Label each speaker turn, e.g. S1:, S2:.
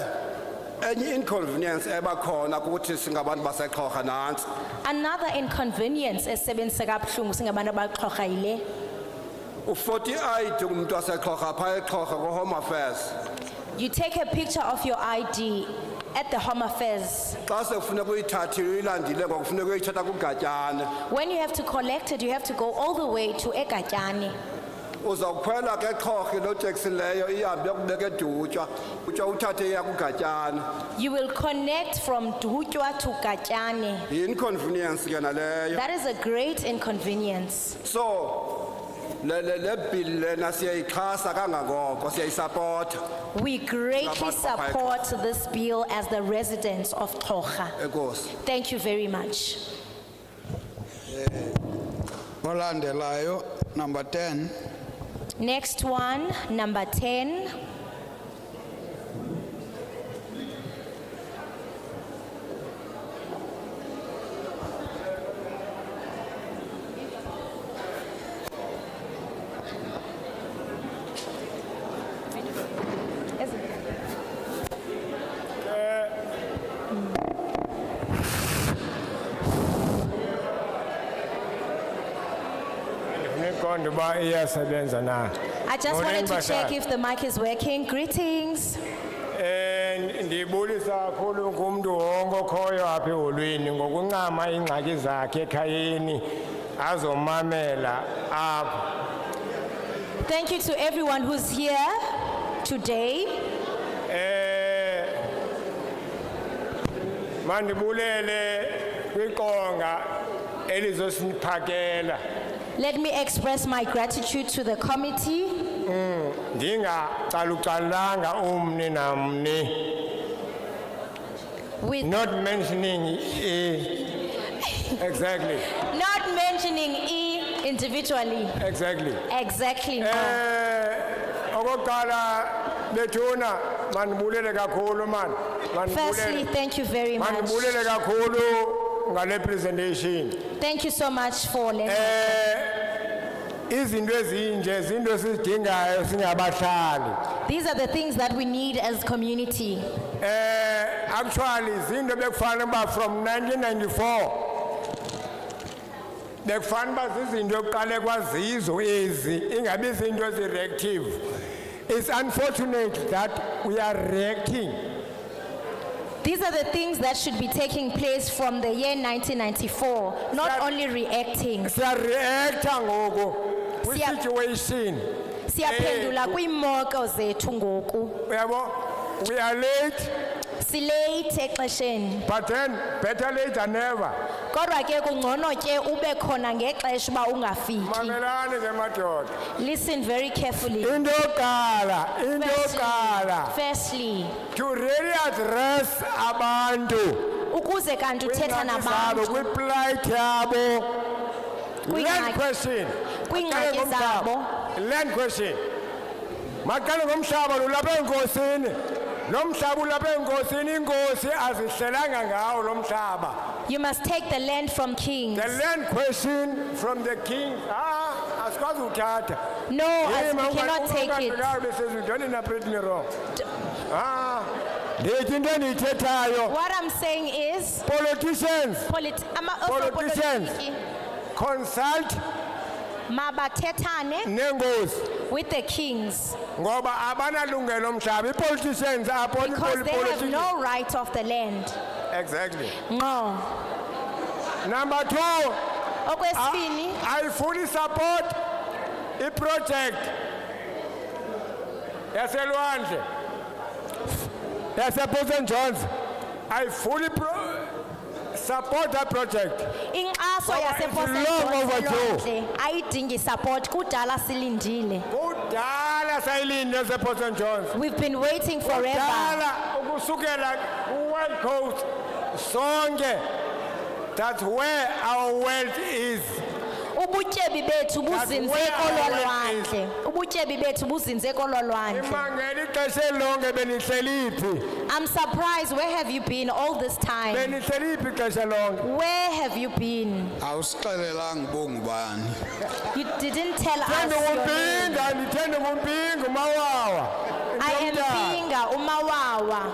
S1: enye inconvenience ebakhona kukuthi singabantu basexhorha nantsi
S2: Another inconvenience esebenzisa kabuhlungu singabantu abaxhorha yile.
S1: u-forty eight ngumntu wasexhorha phaa exhorha kwi-home affairs
S2: You take a picture of your ID at the Home Affairs.
S1: xa sekufuneka uyithathile uyilandile ngokufuneka uyithatha kugatyane
S2: When you have to collect it, you have to go all the way to Ekatyani.
S1: uzawukhwela ke exhorha loo teksi leyo ihambe yokubeka edutywa utsho uthathe iya kugatyane
S2: You will connect from Dutywa to Katyani.
S1: yi-inconvenience ke naleyo
S2: That is a great inconvenience.
S1: so le- le le bill lena siyayixhasa kangangoko siyayisapotha
S2: We greatly
S1: Ngabantu bakwa
S2: support this bill as the residents of Tocha.
S1: enkosi
S2: Thank you very much.
S3: olandelayo number 10
S2: Next one, number 10.
S4: Nikonde uba iyasebenza na.
S2: I just wanted
S4: Morning,
S2: to check
S4: Bashar.
S2: if the mic is working. Greetings.
S4: Eh ndibulisa kakhulu kumuntu wonke okhoyo apha eholweni ngokuncama ingxaki zakhe ekhayeni azomamela apha.
S2: Thank you to everyone who's here today.
S4: Eh mandibulele kwiqonga elizosiphakela
S2: Let me express my gratitude to the committee.
S4: ndingacalucalanga umni namni
S2: With
S4: not mentioning i exactly
S2: Not mentioning E individually.
S4: exactly
S2: Exactly. no.
S4: Eh okokuqala bethuna manibulele kakhulu man
S2: Firstly,
S4: manibulele
S2: thank you very much.
S4: manibulele kakhulu ngale presentation
S2: Thank you so much for letting.
S4: eh izinto ezinje izinto sizidingayo singabahlali
S2: These are the things that we need as community.
S4: eh actually izinto bekufanele uba from 1994 bekufanele uba zizinto ekuqale kwazizo ezi ingabi izinto ezi-reactive it's unfortunate that we are reacting
S2: These are the things that should be taking place from the year 1994, not
S4: Siya- Eh.
S2: only reacting.
S4: siyareacta ngoku
S2: Siya-
S4: kwi-situation
S2: Siyaphendula kwiimeko zethu ngoku.
S4: uyabo we are late
S2: Silate exesheni.
S4: but then better late than never
S2: Kodwa ke kungcono ke ube khona ngexesha uba ungafiki.
S4: mamelani ke madoda
S2: Listen very carefully.
S4: into yokuqala into yokuqala
S2: Firstly, firstly
S4: to really address abantu
S2: ukuze kanti uthetha
S4: Kwiingxaki zabo,
S2: nabantu
S4: kwiplight yabo land
S2: Kwiingxaki-
S4: question Maqale
S2: kwiingxaki
S4: ngomhlaba.
S2: zabo
S4: land question maqale ngomhlaba lulapha enkosini lo mhlaba ulapha enkosini inkosi azihlelanga ngawo lo mhlaba
S2: you must take the land from kings
S4: the land question from the king ah asikwazi uthatha
S2: no as
S4: Yima,
S2: we Oh, cannot
S4: unga-
S2: take it
S4: ungaqhubekayo besizwe, don't interpret me wrong ah ndithi into endiyithethayo
S2: what i'm saying is
S4: politicians
S2: politi- ama-
S4: Politicians.
S2: osopolitiki
S4: consult
S2: mabathethane
S4: nengosi
S2: with the kings
S4: ngoba abanalungelo mhlaba i-politicians apho ni-
S2: because they have
S4: politicians-
S2: no right of the land
S4: exactly
S2: ngqo
S4: number two a-
S2: okwesibini
S4: ayifuni support iproject yaselwandle yaseposen jones ayifuni pro- support that project
S2: inkxaso
S4: Ngoba it's long overdue.
S2: yaseposenjonselwandle ayidingi support kudala silindile
S4: kudala sayilinde yaseposen jones
S2: we've been waiting forever
S4: Kudala ukusukela ku-world coast sonke that's where our wealth is
S2: ubutyebi bethu buzinze
S4: where our wealth
S2: kololwandle ubutyebi bethu buzinze kololwandle
S4: imangela ixesha elonke benihleliphi
S2: i'm surprised where have you been all this time
S4: benihleliphi ixesha lonke
S2: where have you been
S3: awusixelelanga bongubani
S2: you didn't tell us
S4: thende
S2: your name.
S4: kumpinga ndithende kumpinga umawawa
S2: i am
S4: Intomdala.
S2: pinga umawawa